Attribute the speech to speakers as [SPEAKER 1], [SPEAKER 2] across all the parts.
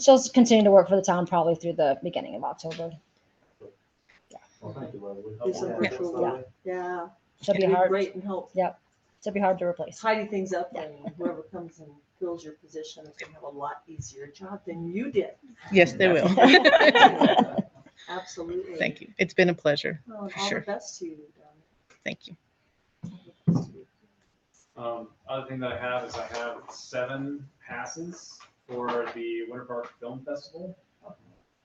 [SPEAKER 1] she'll continue to work for the town probably through the beginning of October.
[SPEAKER 2] Well, thank you, Leslie.
[SPEAKER 3] It's a
[SPEAKER 2] Yeah.
[SPEAKER 3] virtual one. Yeah.
[SPEAKER 1] She'll be
[SPEAKER 3] it'd
[SPEAKER 1] hard,
[SPEAKER 3] Great and help
[SPEAKER 1] she'll be hard to replace.
[SPEAKER 3] tidy things up and whoever comes and fills your position is gonna have a lot easier job than you did.
[SPEAKER 4] Yes, they will.
[SPEAKER 3] Absolutely.
[SPEAKER 4] Thank you. It's been a pleasure.
[SPEAKER 3] Oh, and
[SPEAKER 4] for
[SPEAKER 3] All the
[SPEAKER 4] sure.
[SPEAKER 3] best to you. Donna.
[SPEAKER 4] Thank you.
[SPEAKER 5] Um, other thing that I have is I have seven passes for the Winter Park Film Festival.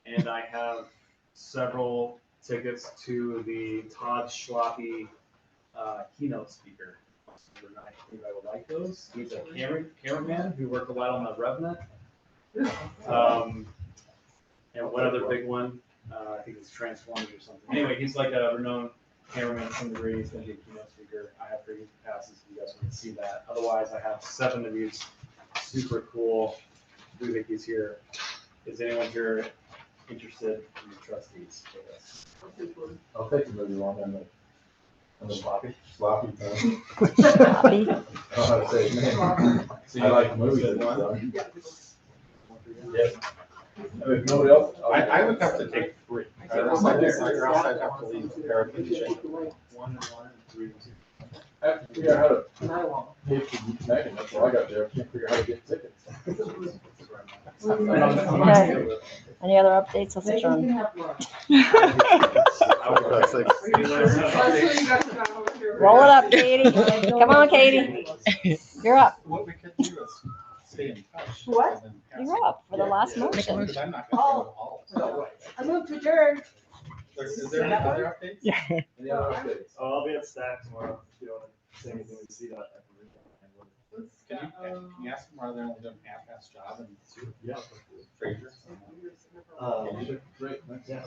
[SPEAKER 5] And I have several tickets to the Todd Schlappe, uh, keynote speaker. I think I would like those. He's a camera, cameraman who worked a lot on the RevNet. Um, and one other big one, uh, I think it's Transformers or something. Anyway, he's like a renowned cameraman from the degree, he's gonna be a keynote speaker. I have three passes, if you guys want to see that. Otherwise, I have seven of these, super cool. Rubik is here. Is anyone here interested in the trustees for this?
[SPEAKER 2] I'll take the movie one and the, and the sloppy, sloppy. thing.
[SPEAKER 1] Sloppy.
[SPEAKER 2] I don't know how to say his name.
[SPEAKER 5] So
[SPEAKER 2] I
[SPEAKER 5] you
[SPEAKER 2] like movies.
[SPEAKER 5] said one?
[SPEAKER 2] Yes. If nobody else.
[SPEAKER 6] I, I would have to take three.
[SPEAKER 2] I don't like this, or else I'd have to leave the paraplegic.
[SPEAKER 5] One and one and three. and two.
[SPEAKER 2] I have to figure out how to
[SPEAKER 3] And I won't.
[SPEAKER 2] pay for Megan, that's all I got there, I can't figure out how to get tickets. I'm not- I'm not
[SPEAKER 1] Okay.
[SPEAKER 2] good with it.
[SPEAKER 1] Any other updates? Let's
[SPEAKER 3] Maybe you
[SPEAKER 1] adjourn.
[SPEAKER 3] can have lunch.
[SPEAKER 2] I would like to
[SPEAKER 5] See you later.
[SPEAKER 1] Roll it up, Katie. Come on, Katie. You're up.
[SPEAKER 6] What we could do is stay in touch.
[SPEAKER 3] What?
[SPEAKER 6] and then
[SPEAKER 1] You're up for the last
[SPEAKER 6] pass
[SPEAKER 1] motion.
[SPEAKER 6] it. Because I'm not gonna go to all of them.
[SPEAKER 3] I moved to adjourn.
[SPEAKER 1] Oh.
[SPEAKER 6] Is is there any other updates?
[SPEAKER 2] Any other updates?
[SPEAKER 5] Oh, I'll be at Stack tomorrow, if you wanna say anything to see that.
[SPEAKER 6] Can you, can you ask them why they're only doing half-ass job and
[SPEAKER 5] Yeah.
[SPEAKER 6] Fraser?
[SPEAKER 5] Um,
[SPEAKER 2] Great, yeah.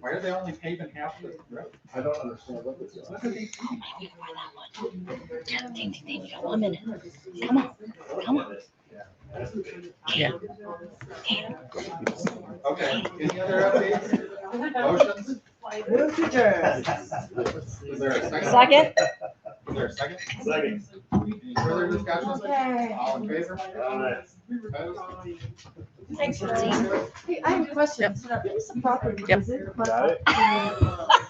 [SPEAKER 6] Why are they only paving half the road?
[SPEAKER 2] I don't understand what this is.
[SPEAKER 6] Look at these people.
[SPEAKER 1] Ding, ding, ding. You got one minute. Come on. Come
[SPEAKER 5] on.
[SPEAKER 6] Okay, any other updates? Motions?
[SPEAKER 3] Move to adjourn.
[SPEAKER 6] Is there a second?
[SPEAKER 1] Second?
[SPEAKER 6] Is there a second?
[SPEAKER 5] Second.
[SPEAKER 6] Any further discussions?
[SPEAKER 3] Okay.
[SPEAKER 6] All in favor?
[SPEAKER 5] Aye.
[SPEAKER 6] Opposed?
[SPEAKER 3] Thanks, Ryan. Hey, I have a question. Is the property,
[SPEAKER 4] Yep.
[SPEAKER 3] is it?
[SPEAKER 5] Got it?
[SPEAKER 3] Uh,